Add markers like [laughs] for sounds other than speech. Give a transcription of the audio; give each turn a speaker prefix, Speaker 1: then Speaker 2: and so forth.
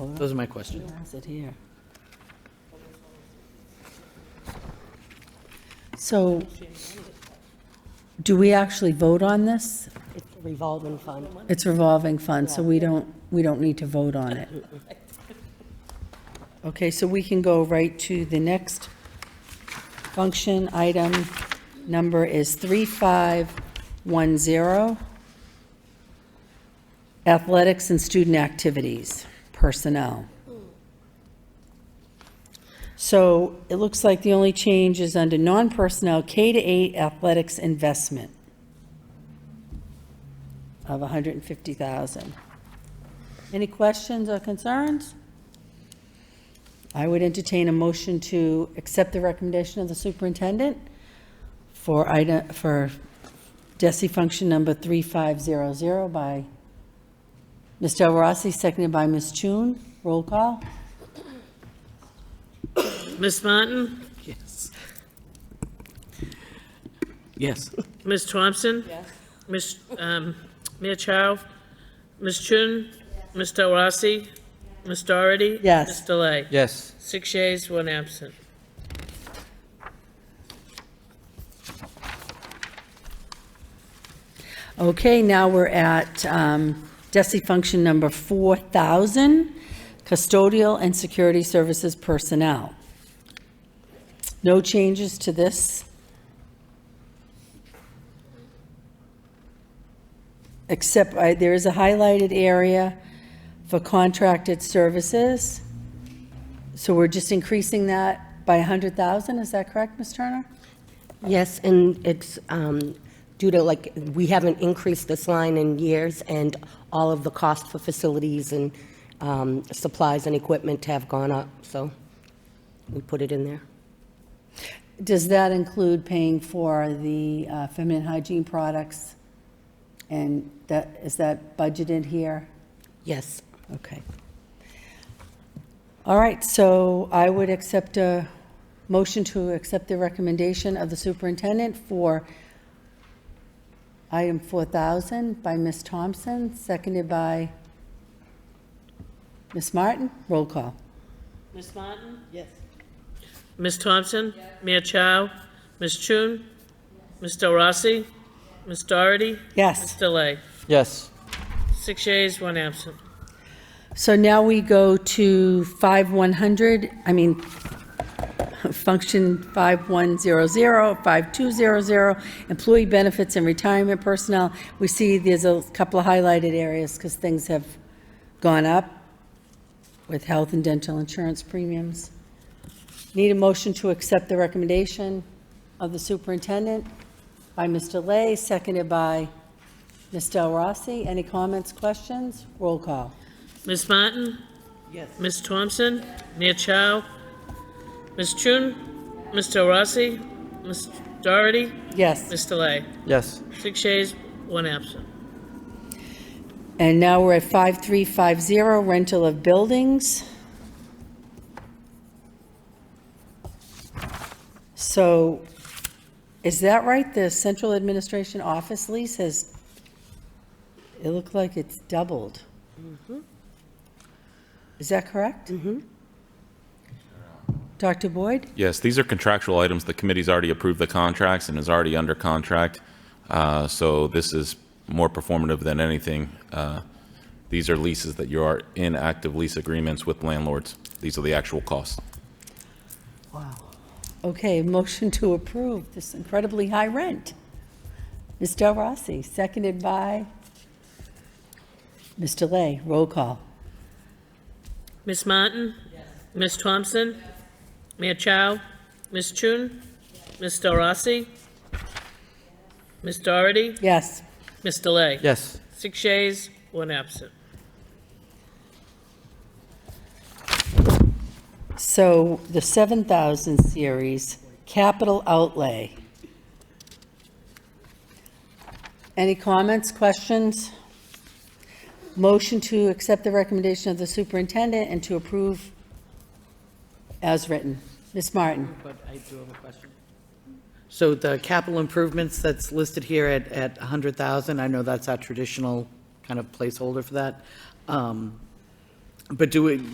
Speaker 1: Those are my questions.
Speaker 2: Has it here. So, do we actually vote on this?
Speaker 3: It's a revolving fund.
Speaker 2: It's revolving fund, so we don't, we don't need to vote on it. Okay, so we can go right to the next function. Item number is 3510, athletics and student activities, personnel. So it looks like the only change is under non-personnel, K to 8 athletics investment of 150,000. Any questions or concerns? I would entertain a motion to accept the recommendation of the superintendent for item, for DESI function number 3500 by Ms. Del Rossi, seconded by Ms. Chun. Roll call?
Speaker 4: Ms. Martin?
Speaker 1: Yes. Yes.
Speaker 4: Ms. Thompson? Yes. Ms., um, Mia Chow? Ms. Chun? Ms. Del Rossi? Ms. Doherty?
Speaker 2: Yes.
Speaker 4: Ms. Delay?
Speaker 1: Yes.
Speaker 4: Six yeas, one absent.
Speaker 2: Okay, now we're at um, DESI function number 4,000, custodial and security services personnel. No changes to this? Except I- there is a highlighted area for contracted services. So we're just increasing that by 100,000, is that correct, Ms. Turner?
Speaker 3: Yes, and it's um, due to, like, we haven't increased this line in years, and all of the costs for facilities and um, supplies and equipment have gone up, so we put it in there.
Speaker 2: Does that include paying for the uh, feminine hygiene products? And that, is that budgeted here?
Speaker 3: Yes.
Speaker 2: Okay. All right, so I would accept a motion to accept the recommendation of the superintendent for item 4,000 by Ms. Thompson, seconded by Ms. Martin. Roll call.
Speaker 4: Ms. Martin? Yes. Ms. Thompson? Mia Chow? Ms. Chun? Ms. Del Rossi? Ms. Doherty? Ms.
Speaker 2: Yes.
Speaker 4: Delay?
Speaker 1: Yes.
Speaker 4: Six yeas, one absent.
Speaker 2: So now we go to 5100, I mean, function 5100, 5200, employee benefits and retirement personnel. We see there's a couple of highlighted areas because things have gone up with health and dental insurance premiums. Need a motion to accept the recommendation of the superintendent by Mr. Lay, seconded by Ms. Del Rossi. Any comments, questions? Roll call.
Speaker 4: Ms. Martin? Yes. Ms. Thompson? Mia Chow? Ms. Chun? Ms. Del Rossi? Ms. Doherty?
Speaker 2: Yes,
Speaker 4: Ms. Delay?
Speaker 1: Yes.
Speaker 4: Six yeas, one absent.
Speaker 2: and now we're at 5350, rental of buildings. So, is that right? The central administration office lease has, it looked like it's doubled. Is that correct? Mm-hmm. Dr. Boyd?
Speaker 5: Yes, these are contractual items. The committee's already approved the contracts and is already under contract. Uh, So this is more performative than anything. Uh, These are leases that you are in active lease agreements with landlords. These are the actual costs.
Speaker 2: Okay, [laughs] motion to approve this incredibly high rent. Ms. Del Rossi, seconded by Mr. Lay. Roll call.
Speaker 4: Ms. Martin? Ms. Thompson? Mia Chow? Ms. Chun? Ms. Del Rossi? Ms. Doherty?
Speaker 2: Yes.
Speaker 4: Ms. Delay?
Speaker 1: Yes.
Speaker 4: Six yeas, one absent.
Speaker 2: So the 7,000 series, capital outlay. Any comments, questions? Motion to accept the recommendation of the superintendent and to approve as written. Ms. Martin?
Speaker 1: But I do have a question. So the capital improvements that's listed here at, at 100,000, I know that's our traditional kind of placeholder for that. Um, But do we,